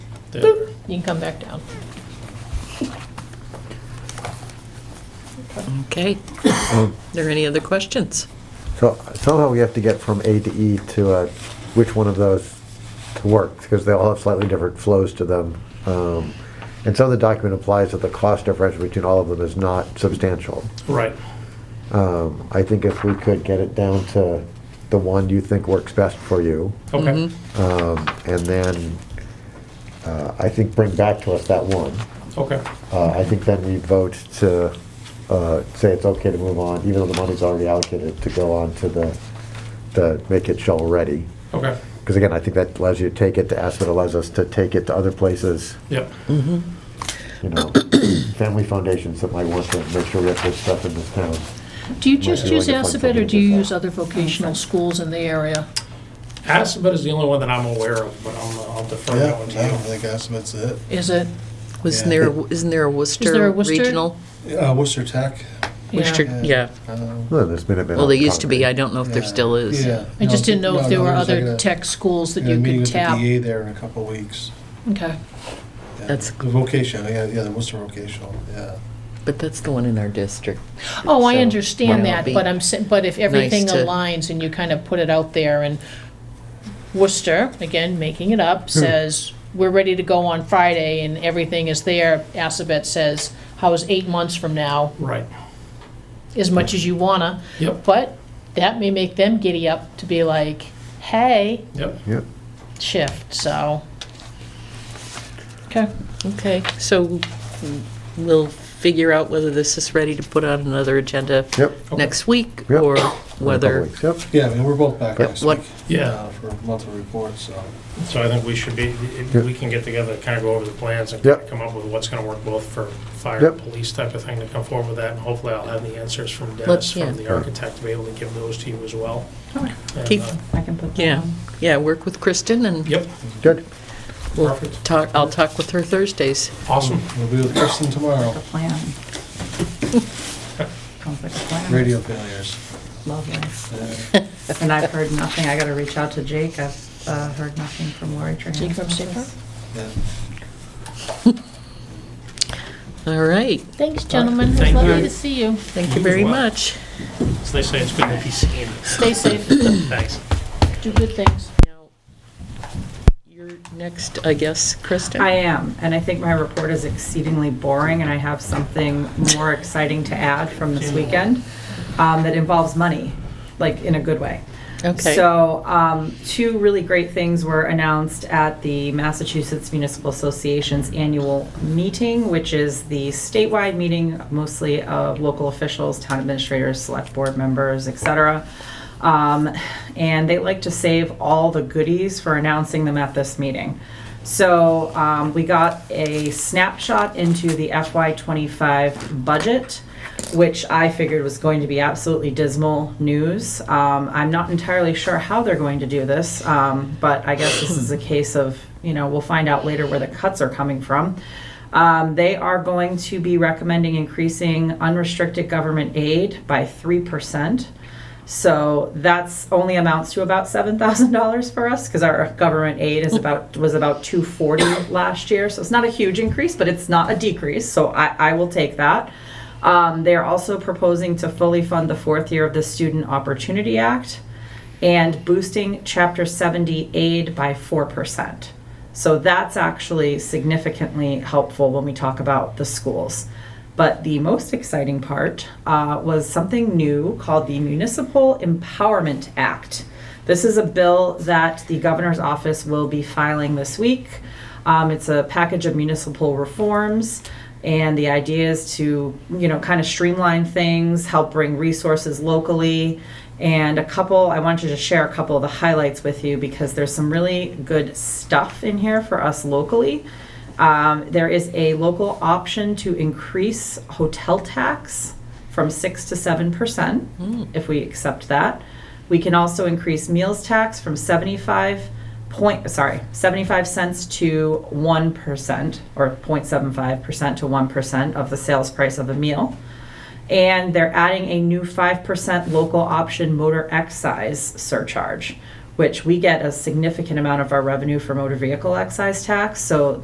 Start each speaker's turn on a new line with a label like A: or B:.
A: Yeah.
B: boop, you can come back down.
C: Okay. Are there any other questions?
D: So somehow we have to get from A to E to uh, which one of those to work, because they all have slightly different flows to them. Um, And some of the document implies that the cost difference between all of them is not substantial.
A: Right.
D: Um, I think if we could get it down to the one you think works best for you,
A: Okay.
C: Mm-hmm.
D: um, and then uh, I think bring back to us that one.
A: Okay.
D: Uh, I think then we vote to uh, say it's okay to move on, even though the money's already allocated, to go on to the, the make it shovel ready.
A: Okay.
D: Because again, I think that allows you to take it to ASPID, allows us to take it to other places,
A: Yep.
D: you know, family foundations that might want to make sure we have this stuff in this town.
B: Do you
D: Might
B: just
D: be
B: use
D: like a fun
B: Alphabet, or
D: thing
B: do you
D: to
B: use
D: sell.
B: other vocational schools in the area?
A: Assabet is the only one that I'm aware of, but I'm, I'll defer
E: Yeah,
A: that one to
E: I don't
A: you.
E: think Assabet's it.
B: Is it?
C: Wasn't
E: Yeah.
C: there, isn't there
B: there
C: a
B: a
C: Worcester
B: Worcester?
C: regional?
D: Oh,
E: Uh, Worcester Tech.
B: yeah.
C: Worcester,
E: Yeah.
C: yeah.
E: um,
D: Well, there's been a bit.
C: Well, there
D: on
C: used to be. I
D: Concord.
C: don't know if there
E: yeah.
C: still is.
E: Yeah.
B: I just didn't know
E: No,
B: if there
E: no,
B: were
E: there's like
B: other
E: a-
B: tech schools that
E: Yeah,
B: you
E: meeting
B: could
E: with the
B: tap.
E: DA there in a couple of weeks.
B: Okay,
E: Yeah.
C: That's-
E: The vocation, yeah, yeah, the Worcester vocational, yeah.
C: But that's the one in our district.
B: Oh, I
C: So,
B: understand
C: yeah.
B: that, but I'm, sa- but if everything
C: Nice to-
B: aligns and you kind of put it out there and Worcester, again, making it up,
E: Hmm.
B: says, we're ready to go on Friday and everything is there. Assabet says, how is eight months from now,
A: Right.
B: as much as you wanna.
A: Yep.
B: But that may make them giddy up to be like, hey,
A: Yep.
D: Yep.
B: shift, so. Okay,
C: Okay, so we'll figure out whether this is ready to put on another agenda
D: Yep.
C: next week
D: Yep.
C: or
D: In a Couple
C: whether,
D: weeks, Yep.
E: Yeah, I mean, we're both back
D: Yep.
E: next
C: What-
E: week.
A: Yeah.
E: uh, For monthly reports, so.
A: So I think we should be, we can get together, kind of go over the plans and
D: Yep.
A: come up with what's going to work both for fire and
D: Yep.
A: police type of thing to come forward with that. And hopefully I'll have the answers from Dennis,
C: Let's- yeah.
A: from the architect, to be able to give those to you as well. And,
C: Keep-
A: uh,
F: I can put that
C: yeah,
F: on.
C: yeah, work with Kristen and
A: Yep,
D: Good.
C: we'll
A: perfect.
C: talk, I'll talk with her Thursdays.
A: Awesome.
E: We'll be with Kristen
F: The
E: tomorrow,
F: plan. Sounds like a plan.
E: radio failures.
F: Lovely.
E: Yeah.
F: And I've heard nothing. I gotta reach out to Jake. I've, uh, heard nothing from Lori Trahan.
B: Jake from Stamford?
E: Yeah.
C: All right,
B: thanks, gentlemen. It's
A: Thank
B: Lovely
A: you.
B: to see you.
C: thank you very
A: Wow.
C: much.
A: So they say it's good to be seen.
B: Stay safe,
A: Thanks.
B: do good things.
C: Now, You're next, I guess, Kristen?
F: I am, and I think my report is exceedingly boring, and I have something more exciting to add from this weekend um, that involves money, like in a good way.
C: Okay.
F: So, um, two really great things were announced at the Massachusetts Municipal Association's annual meeting, which is the statewide meeting mostly of local officials, town administrators, select board members, et cetera. Um, and they like to save all the goodies for announcing them at this meeting. So um, we got a snapshot into the FY25 budget, which I figured was going to be absolutely dismal news. Um, I'm not entirely sure how they're going to do this, um, but I guess this is a case of, you know, we'll find out later where the cuts are coming from. Um, they are going to be recommending increasing unrestricted government aid by 3%. So that's only amounts to about seven thousand dollars for us because our government aid is about was about two forty last year. So it's not a huge increase, but it's not a decrease. So I, I will take that. Um, they are also proposing to fully fund the fourth year of the Student Opportunity Act and boosting Chapter 70 aid by 4%. So that's actually significantly helpful when we talk about the schools. But the most exciting part uh, was something new called the Municipal Empowerment Act. This is a bill that the governor's office will be filing this week. Um, it's a package of municipal reforms, and the idea is to, you know, kind of streamline things, help bring resources locally. And a couple, I wanted to share a couple of the highlights with you because there's some really good stuff in here for us locally. Um, there is a local option to increase hotel tax from 6 to 7% if we accept that. We can also increase meals tax from 75 point, sorry, 75 cents to 1% or 0.75% to 1% of the sales price of a meal. And they're adding a new 5% local option motor excise surcharge, which we get a significant amount of our revenue for motor vehicle excise tax. So